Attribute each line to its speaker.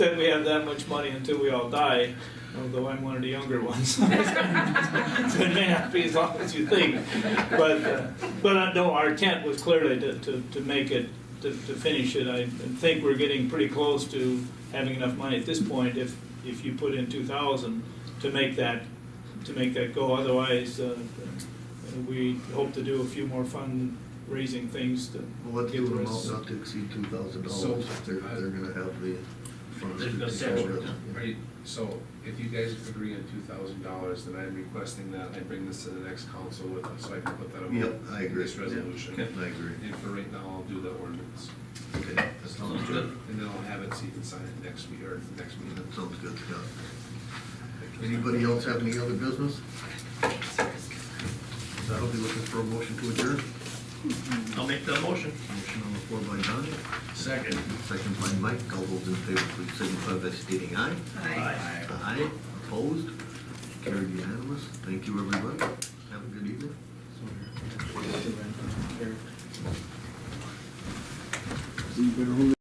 Speaker 1: we have that much money until we all die, although I'm one of the younger ones. So it may not be as long as you think. But, uh, but uh, no, our intent was clearly to, to, to make it, to, to finish it. I think we're getting pretty close to having enough money at this point, if, if you put in two thousand, to make that, to make that go. Otherwise, uh, we hope to do a few more fundraising things to.
Speaker 2: Well, let's
Speaker 1: give
Speaker 2: do an
Speaker 1: the
Speaker 2: amount
Speaker 1: rest-
Speaker 2: not to exceed two thousand
Speaker 3: So,
Speaker 2: dollars, they're,
Speaker 3: uh,
Speaker 2: they're gonna have the funds. to
Speaker 3: There's
Speaker 2: take
Speaker 3: no
Speaker 2: care of it.
Speaker 3: doubt. Are you- So if you guys agree on two thousand dollars, then I'm requesting that I bring this to the next council with, so I can put that on.
Speaker 2: Yep, I agree.
Speaker 3: This resolution.
Speaker 2: Yeah, I agree.
Speaker 3: And for right now, I'll do the ordinance,
Speaker 2: Okay, that sounds good.
Speaker 3: and then I'll have it so you can sign it next week, or next meeting.
Speaker 2: That sounds good, Scott. Anybody else have any other business? That'll be looking for a motion to adjourn.
Speaker 4: I'll make that motion.
Speaker 2: Motion on the floor by Donnie,
Speaker 4: Second.
Speaker 2: second by Mike. All those in favor, please signify by stating aye.
Speaker 4: Aye.
Speaker 2: Aye, opposed, carried unanimous. Thank you, everybody. Have a good evening.